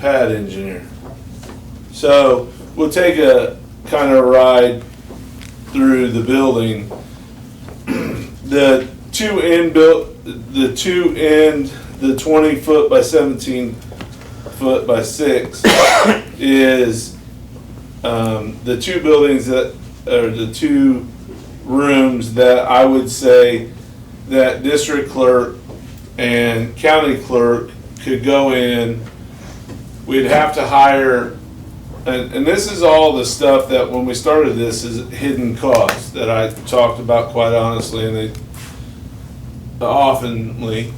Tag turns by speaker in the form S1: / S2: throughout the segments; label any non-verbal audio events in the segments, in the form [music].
S1: pad engineer. So we'll take a kind of ride through the building. [clears throat] the two end built, the two end, the 20 foot by 17 foot by six [coughs] is um, the two buildings that are the two rooms that I would say that district clerk and county clerk could go in we'd have to hire, and, and this is all the stuff that when we started this is hidden costs that I talked about quite honestly and they oftenly,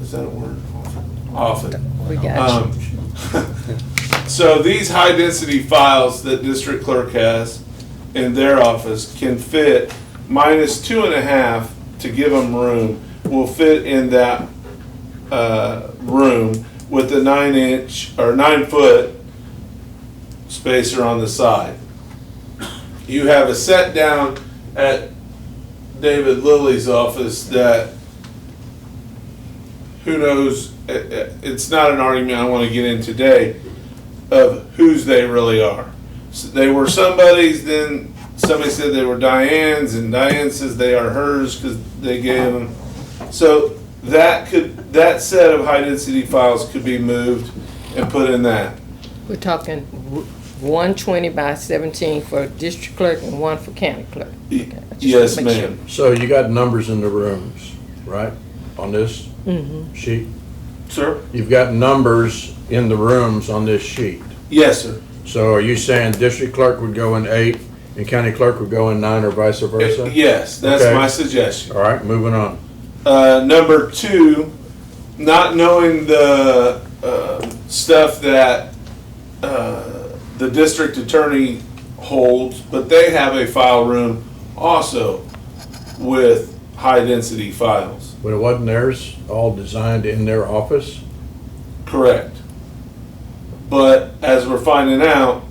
S1: is that a word? Often.
S2: We got
S1: Um, [laughs] So these high-density files that district clerk has in their office can fit minus two and a half to give them room, will fit in that uh, room with the nine-inch or nine-foot spacer on the side. You have a set-down at David Lilly's office that who knows, it- it- it's not an argument I want to get in today of whose they really are. So They were somebody's, then somebody said they were Diane's, and Diane says they are hers because they gave them. So that could, that set of high density files could be moved and put in that.
S2: We're talking w- one twenty by seventeen for district clerk and one for county clerk.
S1: Y-
S2: Okay, I just
S1: Yes,
S2: wanna make sure.
S1: ma'am.
S3: So you got numbers in the rooms, right, on this sheet?
S1: Sir?
S3: You've got numbers in the rooms on this sheet.
S1: Yes, sir.
S3: So are you saying district clerk would go in eight and county clerk would go in nine or vice versa?
S1: Yes, that's
S3: Okay.
S1: my suggestion.
S3: All right, moving on.
S1: Uh, number two, not knowing the uh, stuff that uh, the district attorney holds, but they have a file room also with high density files.
S3: But it wasn't theirs, all designed in their office?
S1: Correct. But as we're finding out,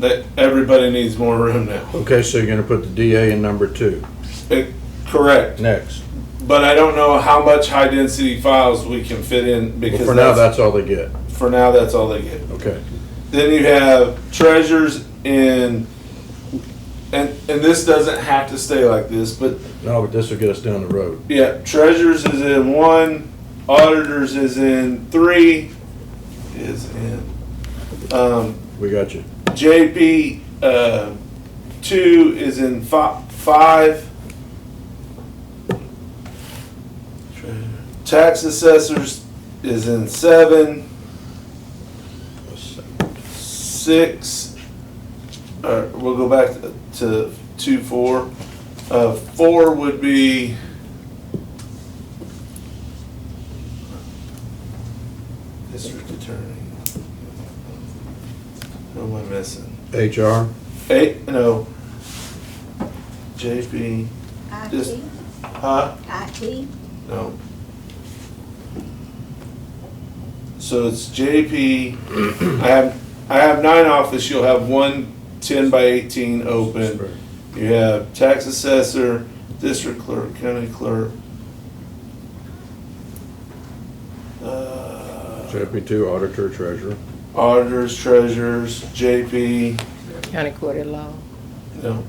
S1: that everybody needs more room now.
S3: Okay, so you're gonna put the DA in number two,
S1: Eh, Correct.
S3: next.
S1: But I don't know how much high density files we can fit in
S3: Well,
S1: because
S3: for now, that's all they get,
S1: for now that's all they get.
S3: okay.
S1: Then you have treasures in, and and this doesn't have to stay like this, but
S3: No, but this will get us down the road.
S1: yeah, treasures is in one, auditors is in three, is in um,
S3: We got you.
S1: JP uh, two is in fi- five. Tax assessors is in seven. six. Uh, we'll go back to, to two four. Uh, four would be. District attorney. Who am I missing?
S3: HR,
S1: Eight. No. JP. Just-
S4: IT,
S1: Huh?
S4: IT,
S1: No. So it's JP. I have I have nine office. You'll have one 10 by 18 open. You have tax assessor, district clerk, county clerk. Uh,
S3: deputy two, auditor, treasurer.
S1: auditors, treasurers, JP.
S2: County court at law.
S1: No.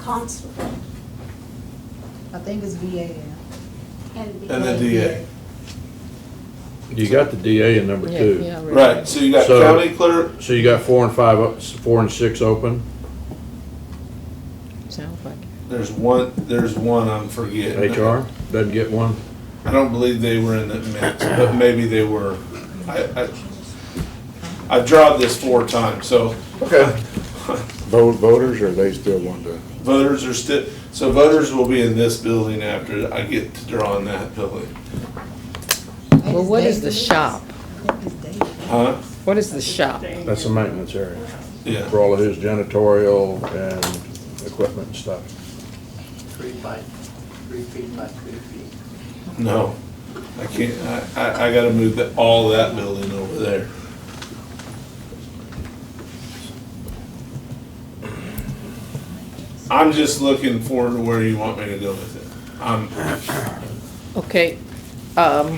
S4: constable,
S5: I think it's VA.
S4: and the.
S1: And the DA.
S3: You got the DA in number
S2: Yeah,
S3: two.
S2: yeah, I read
S1: Right.
S2: that.
S1: So you got
S3: So-
S1: county clerk.
S3: So you got four and five, o- four and six open,
S2: Sounds like
S1: There's one. There's one I'm forgetting.
S3: HR, doesn't get one.
S1: I don't believe they were in the mix, but maybe they were. I, I, I drawn this four times, so
S3: Okay.
S6: vote voters, or they still want to?
S1: voters are still, so voters will be in this building after I get to draw in that building.
S2: it. Well, what is the shop?
S1: Huh?
S2: What is the shop?
S3: That's the maintenance area,
S1: Yeah.
S3: for all of his janitorial and equipment and stuff.
S7: Three by, three feet by three feet.
S1: No, I can't, I, I, I gotta move that, all that building over there. I'm just looking forward to where you want me to go with it. I'm,
S2: Okay, um,